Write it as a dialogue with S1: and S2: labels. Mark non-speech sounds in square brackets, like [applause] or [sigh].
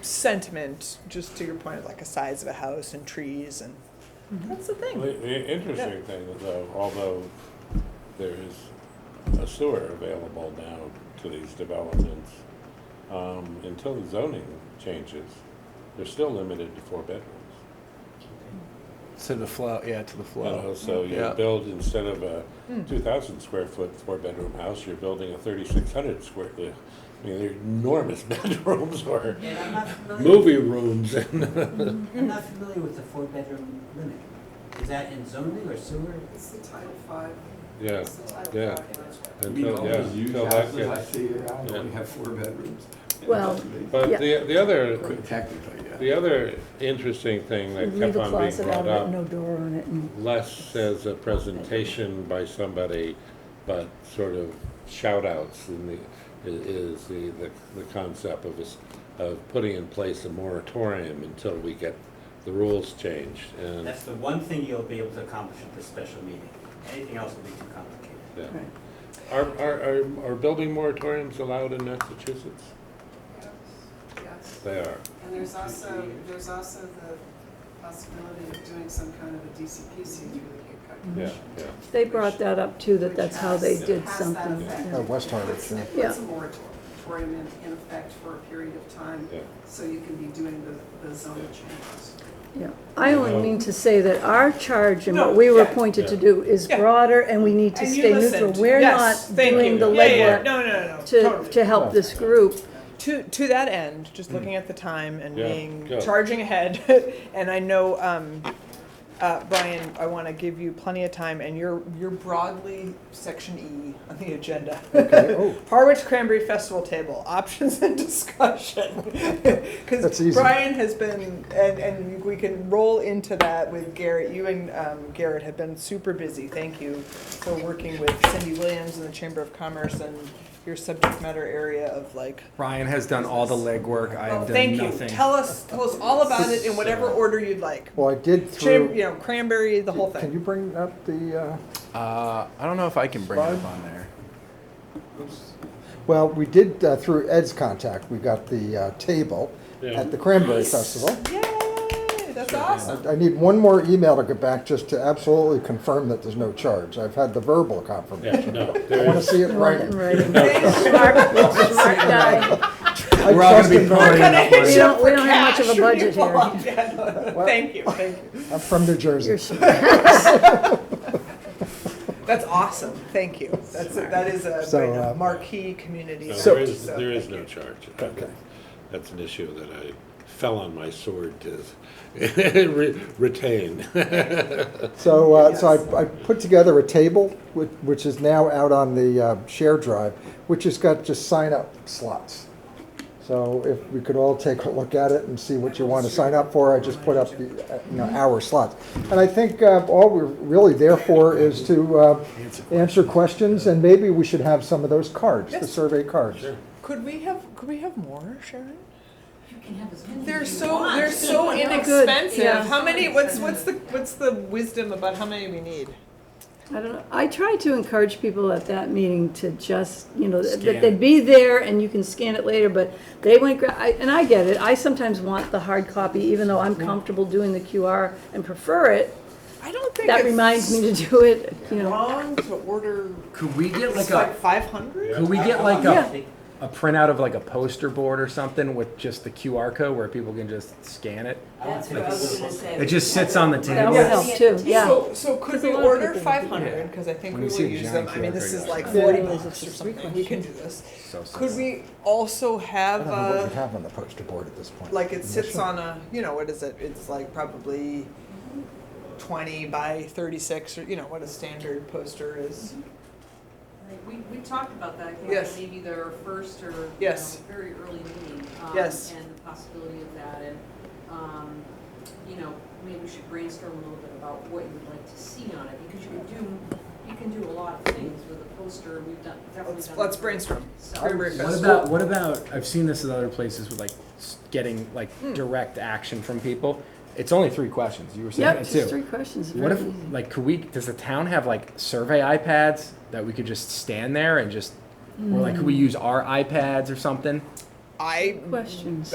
S1: sentiment, just to your point of like a size of a house and trees and
S2: Mm-hmm.
S1: that's the
S3: The,
S1: thing.
S3: the interesting thing is though, although there is a sewer available now to these developments, um, until the zoning changes, they're still limited to four bedrooms.
S4: To the flow, yeah, to the
S3: You know,
S4: flow.
S3: so you
S4: Yeah.
S3: build, instead of a two thousand square foot four-bedroom house, you're building a thirty-six hundred square, I mean, they're enormous [laughs] bedrooms or
S5: And I'm not familiar,
S3: movie rooms [laughs] and
S5: I'm not familiar with the four-bedroom limit. Is that in zoning or sewer?
S6: It's the Title Five.
S3: Yeah,
S6: It's the Title
S3: yeah.
S6: Five project.
S7: We
S3: until, yeah,
S7: always use
S3: until that
S7: houses, I
S3: gets.
S7: see it, I
S3: Yeah.
S7: only have four bedrooms.
S2: Well,
S3: But the, the other,
S7: Technically, yeah.
S3: the other interesting thing that
S2: Leave
S3: kept
S2: a
S3: on being
S2: closet
S3: brought
S2: out of it, no
S3: up,
S2: door on it, and
S3: less as a presentation by somebody, but sort of shout outs in the, i- is the, the, the concept of this, of putting in place a moratorium until we get the rules changed and,
S5: That's the one thing you'll be able to accomplish at this special meeting. Anything else will be too complicated.
S3: yeah.
S2: Right.
S3: Are, are, are, are building moratoriums allowed in Massachusetts?
S6: Yes, Yes,
S3: They are.
S6: and there's also, there's also the possibility of doing some kind of a DCPC through the Cape
S3: Yeah,
S6: Cod
S3: yeah.
S2: they brought that up too, that that's how they did something.
S6: At
S2: yeah.
S4: West Harwich, yeah.
S6: It puts a
S2: Yeah.
S6: moratorium in, in effect for a period of time,
S3: Yeah.
S6: so you can be doing the, the zone changes.
S2: Yeah, I only
S3: No.
S2: mean to say that our charge and what
S1: No,
S2: we were
S1: yeah.
S2: appointed to
S3: Yeah.
S2: do is
S1: Yeah.
S2: broader, and we need to
S1: And you
S2: stay neutral.
S1: listened.
S2: We're
S1: Yes,
S2: not
S1: thank
S2: doing
S1: you.
S2: the
S1: Yeah, yeah,
S2: legwork
S1: No, no, no, no,
S2: to,
S1: totally.
S2: to help this group.
S1: To, to that end, just looking at the time and
S3: Yeah,
S1: being,
S3: yeah.
S1: charging ahead, [laughs] and I know, um, uh, Brian, I wanna give you plenty of time, and you're, you're broadly section E on the agenda. [laughs] Harwich Cranberry Festival table, [laughs] options and discussion. [laughs]
S4: That's
S1: Cause
S4: easy.
S1: Brian has been, and, and we can roll into that with Garrett, you and, um, Garrett have been super busy, thank you for working with Cindy Williams and the Chamber of Commerce and your subject matter area of like
S8: Ryan has done all the legwork. I have
S1: well,
S8: done
S1: thank
S8: nothing.
S1: you. Tell us, tell us all about it in whatever order you'd like.
S9: Well, I did
S1: Cham- you
S9: through,
S1: know, cranberry, the whole
S9: can you
S1: thing.
S9: bring up the, uh,
S4: Uh, I don't know if I can bring it up on there.
S9: well, we did, uh, through Ed's contact, we got the uh, table
S3: Yeah.
S9: at the Cranberry Festival.
S1: Yay, that's awesome.
S9: I I need one more email to get back just to absolutely confirm that there's no charge. I've had the verbal confirmation.
S3: Yeah, no,
S9: I
S3: there
S9: want
S3: is.
S9: to see it right.
S3: [laughs]
S2: Right.
S1: Thanks,
S2: Smart guy.
S8: We're all going to be
S1: We're
S8: pouring
S1: gonna
S8: enough
S1: hit
S8: money.
S2: We
S1: you
S2: don't-
S1: up
S2: we
S1: for
S2: don't have much of a
S1: cash when you
S2: budget here.
S1: [laughs] walk in. Thank you, thank you.
S9: I'm from New Jersey.
S2: You're
S1: That's awesome. Thank you. That's a, that is a,
S9: So,
S1: right, a
S9: uh,
S1: marquee community.
S3: No,
S1: event,
S3: there is,
S1: so
S3: there is
S1: thank
S3: no
S1: you.
S3: charge. I- That's an issue that I fell on my sword to [laughs] re- retain.
S9: So, uh, so I, I put together a table, which, which is now out on the uh, share drive, which has got just sign up slots. So if we could all take a look at it and see what you want to sign up for, I just put up the, uh, you know, hour slots. And I think uh, all we're really there for is to uh, answer questions, and maybe we should have some of those cards, the
S1: Yes.
S9: survey cards.
S1: Could we have, could we have more, Sharon?
S10: You can have as many as
S1: They're
S10: you
S1: so,
S10: want.
S1: they're so
S10: [laughs] Good.
S1: inexpensive.
S2: Yeah.
S1: How many, what's, what's the, what's the wisdom about how many we need?
S2: I don't know. I try to encourage people at that meeting to just, you know, that
S8: Scan
S2: that they'd
S8: it.
S2: be there and you can scan it later, but they went, gra- I- and I get it. I sometimes want the hard copy, even though I'm comfortable doing the QR and prefer it.
S1: I don't think
S2: That
S1: it's
S2: reminds me to do it, you know.
S1: wrong to order
S8: Could we get like
S1: It's
S8: a?
S1: like five hundred?
S8: Could we get like
S2: Yeah.
S8: a, a printout of like a poster board or something with just the QR code where people can just scan it?
S10: I want
S5: That's what I
S10: people
S5: was
S10: to
S5: gonna
S10: look
S5: say.
S10: at.
S8: It just sits on the
S2: That
S8: table.
S2: would help too, yeah.
S1: So, so could
S2: There's a
S1: we
S2: lot of
S1: order
S2: people.
S1: five hundred, because I think
S8: When
S1: we
S8: you
S1: will
S8: see a
S1: use them,
S8: giant
S1: I mean,
S8: QR
S1: this
S8: code,
S1: is
S8: you're
S1: like
S2: like,
S1: forty
S2: Yeah.
S1: bucks or
S2: It's just
S1: something, we can do this.
S8: So simple.
S1: Could we also
S9: I
S1: have
S9: don't know what we
S1: a,
S9: have on the poster board at this point.
S1: uh, like it sits on a, you know, what is it, it's like probably twenty by thirty-six, or, you know, what a standard poster is.
S10: We, we talked about that, I think,
S1: Yes.
S10: at maybe their first or, you know,
S1: Yes.
S10: very early meeting. um,
S1: Yes.
S10: And the possibility of that, and, um, you know, maybe we should brainstorm a little bit about what you would like to see on it, because you can do, you can do a lot of things with a poster, and we've done, definitely
S1: Let's,
S10: done.
S1: let's
S10: that.
S1: brainstorm.
S10: So-
S1: Cranberry
S8: What
S1: Fest.
S8: about what about? I've seen this at other places with like s- getting like
S2: Hmm.
S8: direct action from people. It's only three questions. You were saying
S2: Yep,
S8: that
S2: just
S8: too.
S2: three questions.
S8: What
S2: very
S8: if
S2: easy.
S8: like could we? Does the town have like survey iPads that we could just
S2: Hmm.
S8: stand there and just? Or like could we use our iPads or something?
S1: I
S2: Questions.